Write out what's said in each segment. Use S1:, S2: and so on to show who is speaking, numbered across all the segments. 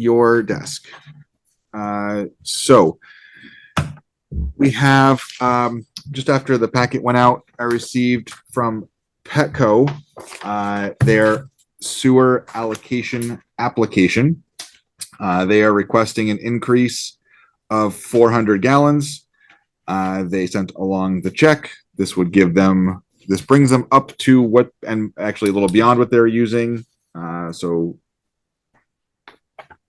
S1: your desk. Uh, so we have, um, just after the packet went out, I received from Petco, uh, their sewer allocation application. Uh, they are requesting an increase of four hundred gallons. Uh, they sent along the check. This would give them, this brings them up to what, and actually a little beyond what they're using. Uh, so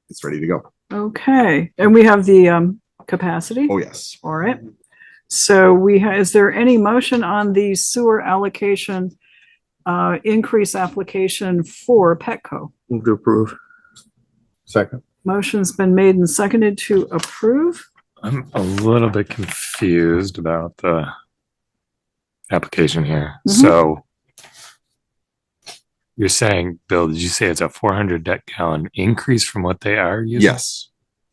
S1: it's ready to go.
S2: Okay, and we have the um capacity,
S1: Oh, yes.
S2: all right. So we, ha- is there any motion on the sewer allocation uh increase application for Petco?
S3: Move to approve. Second.
S2: Motion's been made and seconded to approve.
S4: I'm a little bit confused about the application here.
S2: Mhm.
S4: So you're saying, Bill, did you say it's a 400 deck gallon increase from what they are using?
S1: Yes.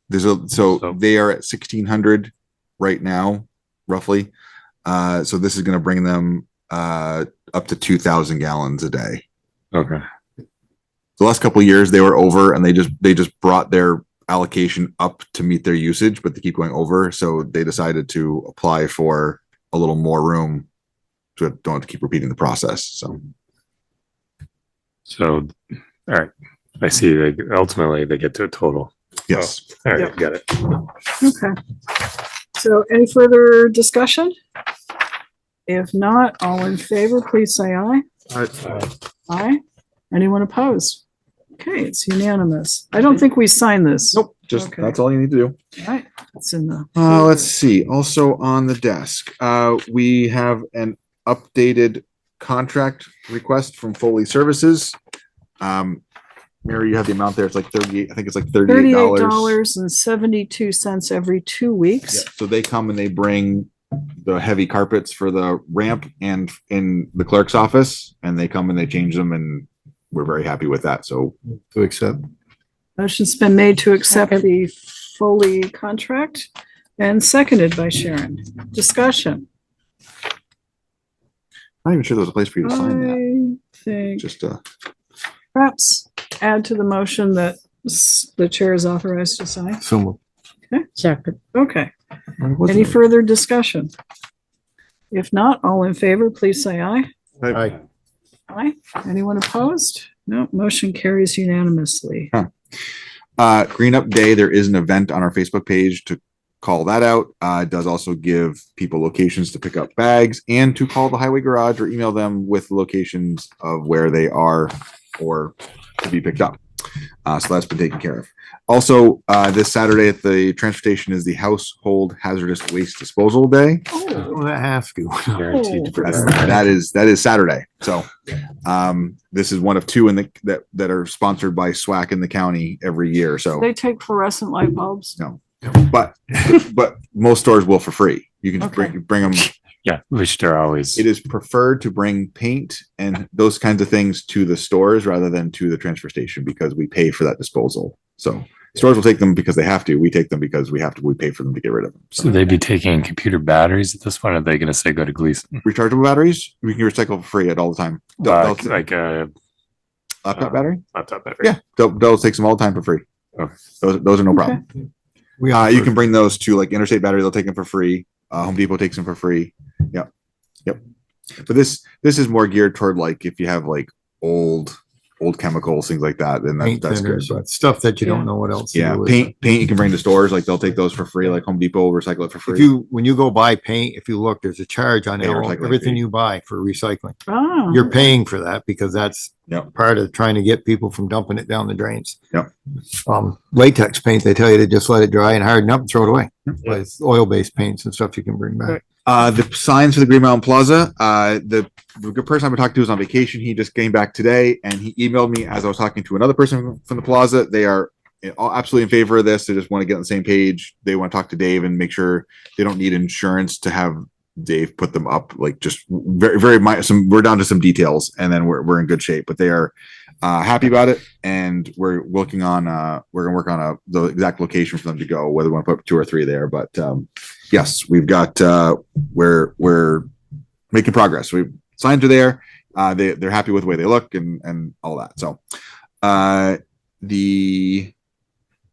S1: There's a, so
S4: So-
S1: they are at sixteen hundred right now, roughly. Uh, so this is gonna bring them, uh, up to two thousand gallons a day.
S4: Okay.
S1: The last couple of years, they were over and they just, they just brought their allocation up to meet their usage, but they keep going over. So they decided to apply for a little more room. So don't have to keep repeating the process. So
S4: So, all right. I see. They ultimately they get to a total.
S1: yes,
S4: All right.
S2: Yep.
S4: Got it.
S2: Okay. So any further discussion? If not, all in favor, please say aye. Aye. Anyone opposed? Okay, it's unanimous. I don't think we signed this.
S1: nope, just,
S2: Okay.
S1: that's all you need to do.
S2: All Right, it's in the.
S1: Uh, let's see. Also on the desk, uh, we have an updated contract request from Foley Services. Um, Mary, you have the amount there. It's like thirty-eight, I think it's like thirty-eight
S2: Thirty-eight
S1: dollars.
S2: dollars and seventy-two cents every two weeks.
S1: So they come and they bring the heavy carpets for the ramp and in the clerk's office and they come and they change them and we're very happy with that. So
S3: To accept.
S2: Motion's been made to accept the Foley contract and seconded by Sharon. Discussion.
S1: I'm not even sure there was a place for you to sign that.
S2: I think
S1: Just, uh,
S2: perhaps add to the motion that s- the chair is authorized to sign.
S3: So moved.
S5: Second.
S2: Okay,
S1: where was
S2: any
S1: it?
S2: further discussion? If not, all in favor, please say aye.
S3: Aye.
S2: Aye. Anyone opposed? No, motion carries unanimously.
S1: uh green up day there is an event on our facebook page to call that out uh it does also give people locations to pick up bags and to call the highway garage or email them with locations of where they are or to be picked up uh, so that's been taken care of also uh this saturday at the transportation is the household hazardous waste disposal day
S3: Oh, that has to.
S4: Guaranteed to
S1: that's,
S4: provide.
S1: that is that is Saturday. So um this is one of two in the that that are sponsored by SWAC in the county every year. So
S2: They take fluorescent light bulbs.
S1: but but most stores will for free. You can just bring bring them.
S4: Yeah, which they're always.
S1: It is preferred to bring paint and those kinds of things to the stores rather than to the transfer station because we pay for that disposal. So stores will take them because they have to. We take them because we have to. We pay for them to get rid of them.
S4: So
S1: So
S4: they'd be taking computer batteries at this point. Are they going to say go to Gleason?
S1: rechargeable batteries we can recycle for free at all the time. Del-
S4: Uh,
S1: Dell-
S4: like a
S1: laptop battery.
S4: laptop battery.
S1: Yeah, Del, Dell takes them all the time for free.
S4: uh, Okay.
S1: Those those are no
S2: Okay.
S1: problem.
S3: We
S1: Uh, you can bring those to like Interstate Battery. They'll take them for free. Uh, Home Depot takes them for free. Yep. Yep. But this, this is more geared toward like if you have like old, old chemicals, things like that, then that-
S3: Paint
S1: that's good.
S3: thinners, but stuff that you
S2: Yeah.
S3: don't know what else. to
S1: Yeah.
S3: do with.
S1: Paint, paint you can bring to stores. Like they'll take those for free. Like Home Depot will recycle it for
S3: If
S1: free.
S3: you, when you go buy paint, if you look, there's a charge on
S1: Pay
S3: it,
S1: recycling
S3: everything
S1: fee.
S3: you buy for recycling.
S2: Ah,
S3: You're paying for that because that's
S1: Yep.
S3: part of trying to get people from dumping it down the drains.
S1: Yep.
S3: Um, latex paint, they tell you to just let it dry and harden up and throw it away. But it's oil-based paints and stuff you can bring back.
S1: Uh, the signs for the Green Mountain Plaza, uh, the, the good person I've been talking to is on vacation. He just came back today and he emailed me as I was talking to another person from the plaza. They are in- all absolutely in favor of this. They just want to get on the same page. They want to talk to Dave and make sure they don't need insurance to have Dave put them up. Like just very, very mi- some, we're down to some details and then we're, we're in good shape, but they are, uh, happy about it. And we're working on, uh, we're gonna work on a, the exact location for them to go, whether we want to put two or three there, but, um, yes, we've got, uh, we're we're making progress. We signs are there. Uh, they they're happy with the way they look and and all that. So uh, the